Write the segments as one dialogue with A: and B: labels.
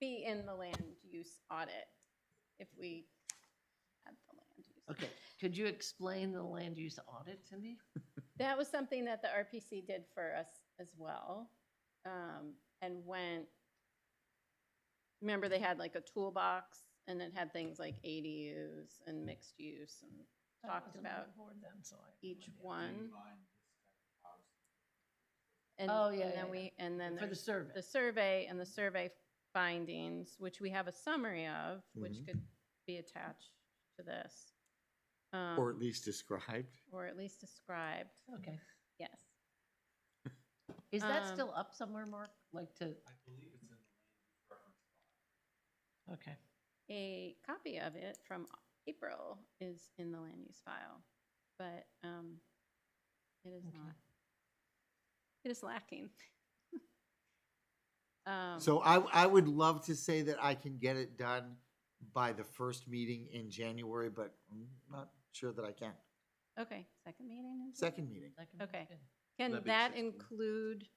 A: be in the land use audit if we had the land use.
B: Okay, could you explain the land use audit to me?
A: That was something that the RPC did for us as well. um, And went, remember they had like a toolbox and it had things like ADUs and mixed use and
C: I
A: talked
C: wasn't on
A: about
C: the board then, so I have no
A: each
C: idea.
A: one. And
B: Oh, yeah,
A: and
B: yeah,
A: then we, and then
B: For the
A: there's
B: survey?
A: the survey and the survey findings, which we have a summary of, which
D: Mhm.
A: could be attached to this.
D: Or
A: um,
D: at least described.
A: Or at least described,
B: Okay.
A: yes.
B: Is that
A: Um,
B: still up somewhere, Mark? Like to,
E: I believe it's in the land use reference file.
B: okay.
A: A copy of it from April is in the land use file, but um, it is
B: Okay.
A: not. It is lacking. Um,
D: So I, I would love to say that I can get it done by the first meeting in January, but I'm not sure that I can.
A: Okay, second meeting? in June?
D: Second meeting.
B: that can be
A: Okay.
B: good.
A: Can
F: That'd be the
A: that
F: 16th.
A: include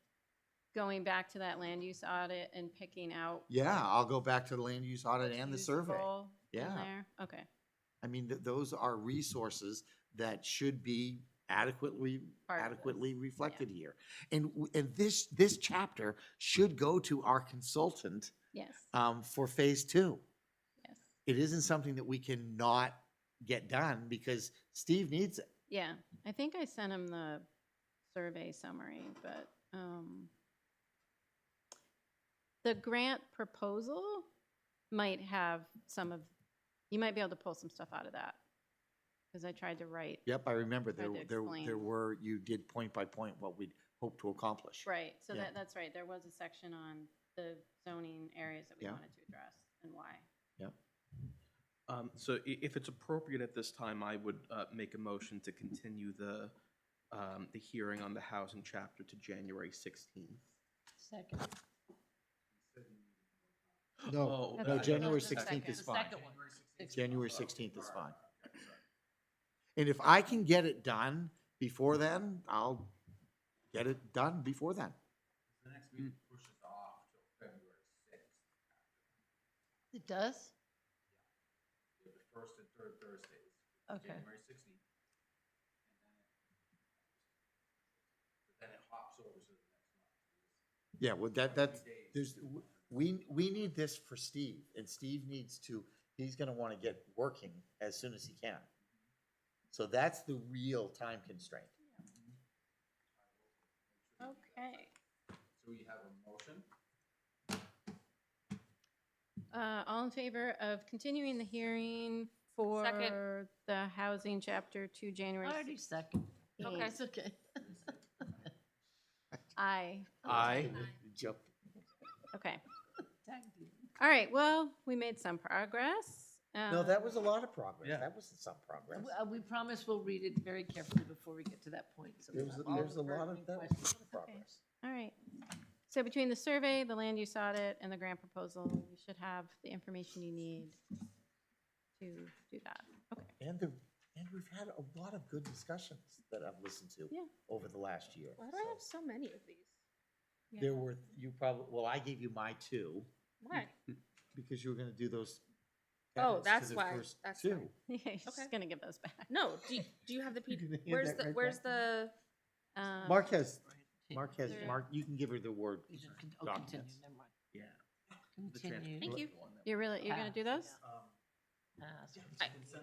A: going back to that land use audit and picking out?
D: Yeah, I'll go back to the land use audit and the
A: who's
D: survey.
A: role in
D: Yeah.
A: there? Okay,
D: I mean, th- those are resources that should be adequately,
A: Part of this.
D: adequately reflected here. And, w- and this, this chapter should go to our consultant,
A: yes,
D: um, for phase two.
A: yes,
D: It isn't something that we cannot get done because Steve needs it.
A: yeah. I think I sent him the survey summary, but, um, the grant proposal might have some of, you might be able to pull some stuff out of that. Because I tried to write,
D: Yep, I remember
A: Tried
D: there,
A: to
D: there,
A: explain.
D: there were, you did point by point what we'd hope to accomplish.
A: right, so
D: Yeah.
A: that, that's right. There was a section on the zoning areas that we
D: Yeah.
A: wanted to address and why.
F: Um, so i- if it's appropriate at this time, I would, uh, make a motion to continue the, um, the hearing on the housing chapter to January sixteenth.
B: Second.
F: Oh,
D: No,
A: That's
D: no,
A: the-
D: January
A: that's the
D: sixteenth is
B: The
A: It's
D: fine.
B: second one.
D: January sixteenth is fine. And if I can get it done before then, I'll get it done before then.
E: The next
D: Mm.
E: meeting pushes off till February sixth,
B: It does?
E: the first and third Thursdays,
B: Okay.
E: January sixteenth. But then it hops over to the next month.
D: Yeah, well, that, that's,
E: Three days.
D: there's, we, we need this for Steve, and Steve needs to, he's gonna wanna get working as soon as he can. So that's the real time constraint.
A: Okay.
E: So we have a motion.
A: Uh, all in favor of continuing the hearing for the housing chapter to January?
B: I already second.
A: Okay.
B: It's okay.
A: Aye,
F: Aye.
D: Jump.
A: okay.
B: Tag team.
A: All right, well, we made some progress. Um,
D: No, that was a lot of progress.
F: Yeah.
D: That wasn't some progress.
B: We- uh, We promise we'll read it very carefully before we get to that point. so
D: There was,
B: we'll have uh, all
D: there's a
B: the
D: lot of,
B: pertinent
D: that was
B: questions.
D: a lot of progress.
A: All right. So between the survey, the land use audit, and the grant proposal, you should have the information you need to do that. Okay,
D: And the, and we've had a lot of good discussions that I've listened to
A: Yeah.
D: over the last year.
G: Why do I have
D: so.
G: so many of these?
D: There were, you probably, well, I gave you my two,
G: Why?
D: Hmm. because you were gonna do those.
G: Oh,
D: edits to
G: that's
D: the
G: why.
D: first
G: That's why.
D: two.
A: yeah, you're just
G: Okay.
A: gonna give those back.
G: No, do you, do you have the
D: You
G: P,
D: can hand
G: where's
D: that
G: the,
D: right
G: where's
D: back to me.
G: the,
A: Um,
D: Mark has,
B: Right.
D: Mark has,
A: There-
D: Mark, you can give her the word.
B: You just con- oh,
D: documents.
B: Continue, never mind.
F: Yeah. the trans-
B: Continue.
G: Thank you.
F: one that-
A: You're really, you're gonna do those?
E: Um,
B: Ah, so-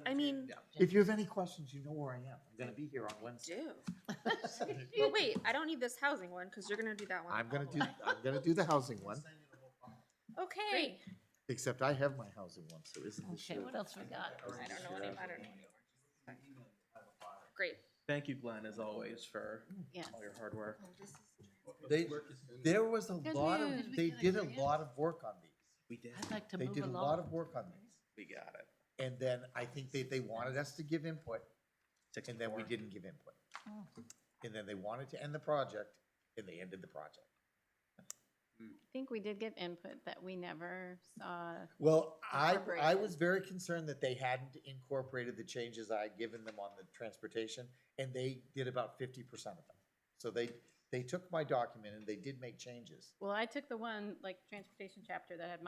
G: I mean,
F: Yeah.
D: If you have any questions, you know where I am. I'm gonna be here on Wednesday.
G: do? Well, wait, I don't need this housing one, cause you're gonna do that one.
D: I'm gonna do, I'm gonna do the housing one,
E: send you the whole file.
A: Okay.
D: except I have my housing one, so isn't this
B: Okay,
D: your?
B: what else we got?
G: I don't know any, I don't know. any more. Great.
F: Thank you, Glenn, as always, for
A: Yes.
F: all your hard work.
D: They, there was a
A: Good
D: lot of,
A: news.
D: they
B: Did we
D: did
B: get a
D: a
B: grant?
D: lot of work on these.
F: We did.
B: I'd like to
D: They
B: move
D: did a lot of
B: along.
D: work on these.
F: We got it.
D: And then I think they, they wanted us to give input, and then we
F: 64.
D: didn't give input.
B: Oh.
D: And then they wanted to end the project, and they ended the project.
A: I think we did get input that we never saw.
D: Well, I, I
A: Incorporated.
D: was very concerned that they hadn't incorporated the changes I had given them on the transportation, and they did about fifty percent of them. So they, they took my document and they did make changes.
A: Well, I took the one, like, transportation chapter that had